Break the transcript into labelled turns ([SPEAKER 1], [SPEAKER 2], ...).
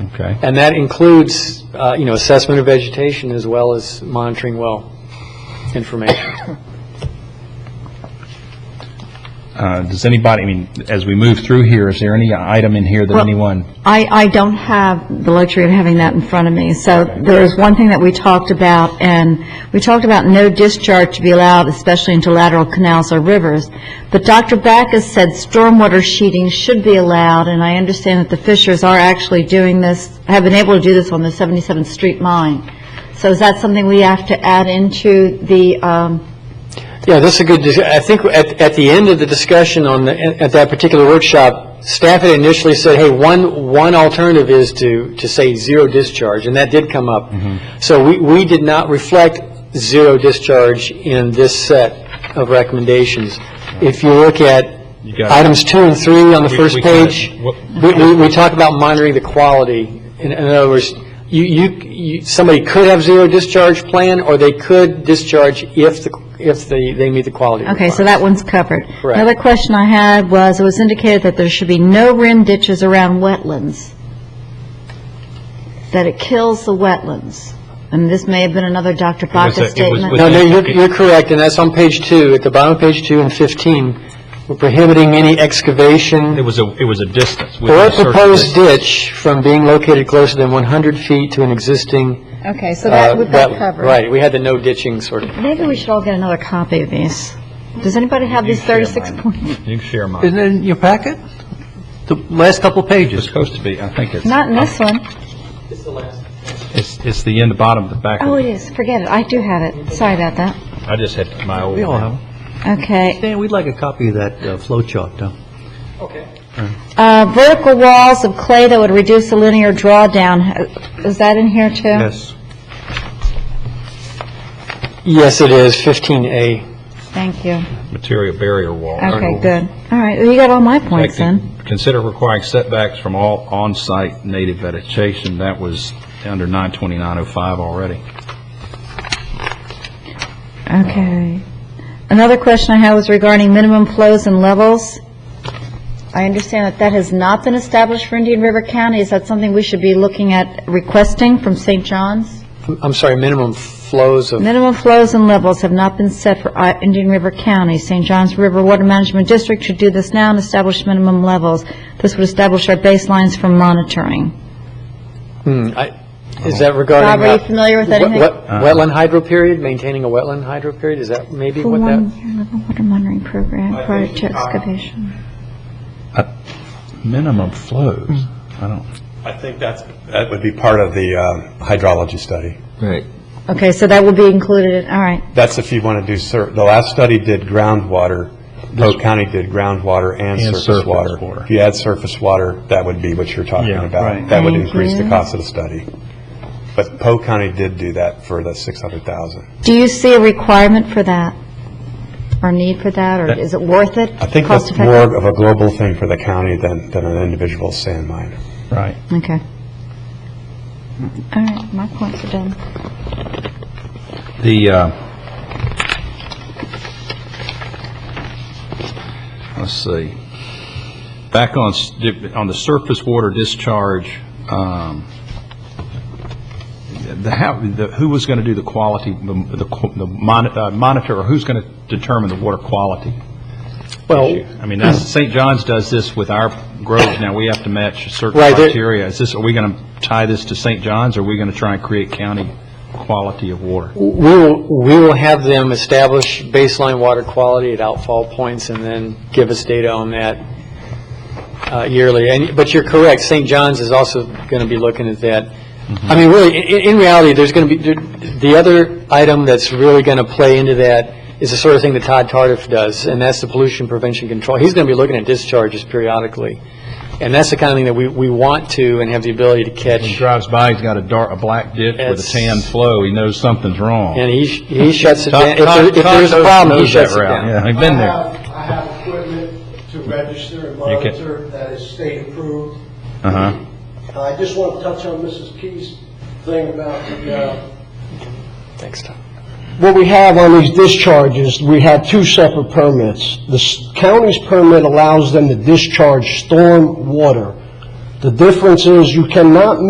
[SPEAKER 1] Okay.
[SPEAKER 2] And that includes, uh, you know, assessment of vegetation as well as monitoring well information.
[SPEAKER 1] Uh, Does anybody, I mean, as we move through here, is there any item in here that
[SPEAKER 3] Well-
[SPEAKER 1] anyone,
[SPEAKER 3] I, I don't have the luxury of having that in front of me. So there is one thing that we talked about, and we talked about no discharge to be allowed, especially into lateral canals or rivers. But Dr. Backus said stormwater sheeting should be allowed, and I understand that the Fishers are actually doing this, have been able to do this on the 77th Street line. So is that something we have to add into the, um,
[SPEAKER 2] Yeah, that's a good, dis- I think at, at the end of the discussion on, the- at that particular workshop, staff had initially said, hey, one, one alternative is to, to say zero discharge, and that did come up.
[SPEAKER 1] Mm-hmm.
[SPEAKER 2] So we, we did not reflect zero discharge in this set of recommendations. If you look at
[SPEAKER 1] got it.
[SPEAKER 2] items two and three on the
[SPEAKER 1] We-
[SPEAKER 2] first
[SPEAKER 1] we kinda-
[SPEAKER 2] page,
[SPEAKER 1] what-
[SPEAKER 2] we, we, we talk about monitoring the quality. In, in other words, you, you, you, somebody could have zero discharge plan, or they could discharge if the, if the, they meet the quality
[SPEAKER 3] okay, so that one's covered.
[SPEAKER 2] Correct.
[SPEAKER 3] Another question I had was, it was indicated that there should be no rim ditches around wetlands, that it kills the wetlands. And this may have been another
[SPEAKER 1] was a-
[SPEAKER 3] Dr.
[SPEAKER 1] it
[SPEAKER 3] Baca
[SPEAKER 1] was
[SPEAKER 3] statement.
[SPEAKER 1] with-
[SPEAKER 2] No, no, you're, you're correct, and that's on page two, at the bottom of page two and 15. We're prohibiting any
[SPEAKER 1] it
[SPEAKER 2] excavation
[SPEAKER 1] was a, it was a distance. within
[SPEAKER 2] or
[SPEAKER 1] a certain
[SPEAKER 2] proposed
[SPEAKER 1] distance.
[SPEAKER 2] ditch from being located closer than 100 feet to an existing.
[SPEAKER 3] Okay, so
[SPEAKER 2] uh,
[SPEAKER 3] that, we've got
[SPEAKER 2] wet-
[SPEAKER 3] covered.
[SPEAKER 2] Right, we had the no ditching sort of.
[SPEAKER 3] Maybe we should all get another copy of these. Does anybody have these 36 points?
[SPEAKER 1] You can share mine.
[SPEAKER 4] Isn't it in your packet? The last couple
[SPEAKER 1] It's
[SPEAKER 4] pages.
[SPEAKER 1] supposed to be, I think it's, uh,
[SPEAKER 3] Not in this one.
[SPEAKER 1] it's it's the end, the bottom, of the back.
[SPEAKER 3] Oh,
[SPEAKER 1] of-
[SPEAKER 3] it is, forget it, I do have it, sorry about that.
[SPEAKER 1] I just had my old.
[SPEAKER 4] We all have them.
[SPEAKER 3] Okay,
[SPEAKER 4] Dan, we'd like a copy of that uh, flow chart, though.
[SPEAKER 3] Uh, vertical walls of clay that would reduce the linear drawdown, is that in here too?
[SPEAKER 2] Yes, it is, 15A.
[SPEAKER 3] Thank you.
[SPEAKER 1] Material barrier wall.
[SPEAKER 3] Okay, good. All right, well, you got all my points then.
[SPEAKER 1] Protecting- Consider requiring setbacks from all on-site native vegetation. That was under 92905 already.
[SPEAKER 3] Okay. Another question I had was regarding minimum flows and levels. I understand that that has not been established for Indian River County. Is that something we should be looking at requesting from St. John's?
[SPEAKER 2] I'm sorry, minimum flows of,
[SPEAKER 3] Minimum flows and levels have not been set for uh, Indian River County. St. John's River Water Management District should do this now and establish minimum levels. This would establish our baselines for monitoring.
[SPEAKER 2] hmm, I- is that regarding?
[SPEAKER 3] Bob, are you
[SPEAKER 2] uh,
[SPEAKER 3] familiar with
[SPEAKER 2] wet-
[SPEAKER 3] anything?
[SPEAKER 2] wet- Wetland hydro period, maintaining a wetland hydro period, is that maybe
[SPEAKER 3] For
[SPEAKER 2] what
[SPEAKER 3] one
[SPEAKER 2] that? uh,
[SPEAKER 3] year, level water monitoring program prior to excavation.
[SPEAKER 1] Minimum flows. I don't.
[SPEAKER 5] I think that's, that would be part of the um, hydrology study.
[SPEAKER 3] Okay, so that will be included, in all right.
[SPEAKER 5] That's if you want to do, sur- the last study did groundwater, Polk County did groundwater and
[SPEAKER 1] And
[SPEAKER 5] surface
[SPEAKER 1] surface
[SPEAKER 5] water.
[SPEAKER 1] water.
[SPEAKER 5] If you add surface water, that would be what you're talking
[SPEAKER 1] Yeah,
[SPEAKER 5] about.
[SPEAKER 1] right.
[SPEAKER 5] That would
[SPEAKER 3] Thank
[SPEAKER 5] increase the
[SPEAKER 3] you.
[SPEAKER 5] cost of the study. But Polk County did do that for the 600,000.
[SPEAKER 3] Do you see a requirement for that, or need for that, or
[SPEAKER 1] That-
[SPEAKER 3] is it worth it?
[SPEAKER 5] I think that's more of a global thing for the county than, than an individual sand mine.
[SPEAKER 1] Right.
[SPEAKER 3] Okay. All right, my points are done.
[SPEAKER 1] The, uh, let's see, back on, s- on the surface water discharge, um, the, how, the, who was going to do the quality, the, the qu- the mon- uh, monitor, or who's going to determine the water quality?
[SPEAKER 2] Well,
[SPEAKER 1] issue? I mean, that's, St. John's does this with our groves, now we have to match certain
[SPEAKER 2] Right, there-
[SPEAKER 1] criteria. Is this, are we going to tie this to St. John's, or are we going to try and create county quality of water?
[SPEAKER 2] We will, we will have them establish baseline water quality at outfall points and then give us data on that uh, yearly. And, but you're correct, St. John's is also going to be looking at that.
[SPEAKER 1] Mm-hmm.
[SPEAKER 2] I mean, really, in, in reality, there's going to be, there- the other item that's really going to play into that is the sort of thing that Todd Tardiff does, and that's the pollution prevention control. He's going to be looking at discharges periodically. And that's the kind of thing that we, we want to and have the ability to
[SPEAKER 1] When he
[SPEAKER 2] catch.
[SPEAKER 1] drives by, he's got a dark, a black ditch with a
[SPEAKER 2] It's-
[SPEAKER 1] tan flow, he knows something's wrong.
[SPEAKER 2] And he, sh- he shuts it
[SPEAKER 1] Todd-
[SPEAKER 2] down. If there- If
[SPEAKER 1] Todd-
[SPEAKER 2] there's a
[SPEAKER 1] Todd
[SPEAKER 2] problem, he
[SPEAKER 1] knows that
[SPEAKER 2] shuts it
[SPEAKER 1] route,
[SPEAKER 2] down.
[SPEAKER 1] Yeah, I've been
[SPEAKER 6] I
[SPEAKER 1] there.
[SPEAKER 6] have- I have equipment to register and
[SPEAKER 1] You can-
[SPEAKER 6] monitor that is state approved. Uh,
[SPEAKER 1] Uh-huh.
[SPEAKER 6] I just want to touch on Mrs. Key's thing about the, uh,
[SPEAKER 2] Thanks, Todd.
[SPEAKER 6] what we have on these discharges, we have two separate permits. The s- county's permit allows them to discharge storm water. The difference is you cannot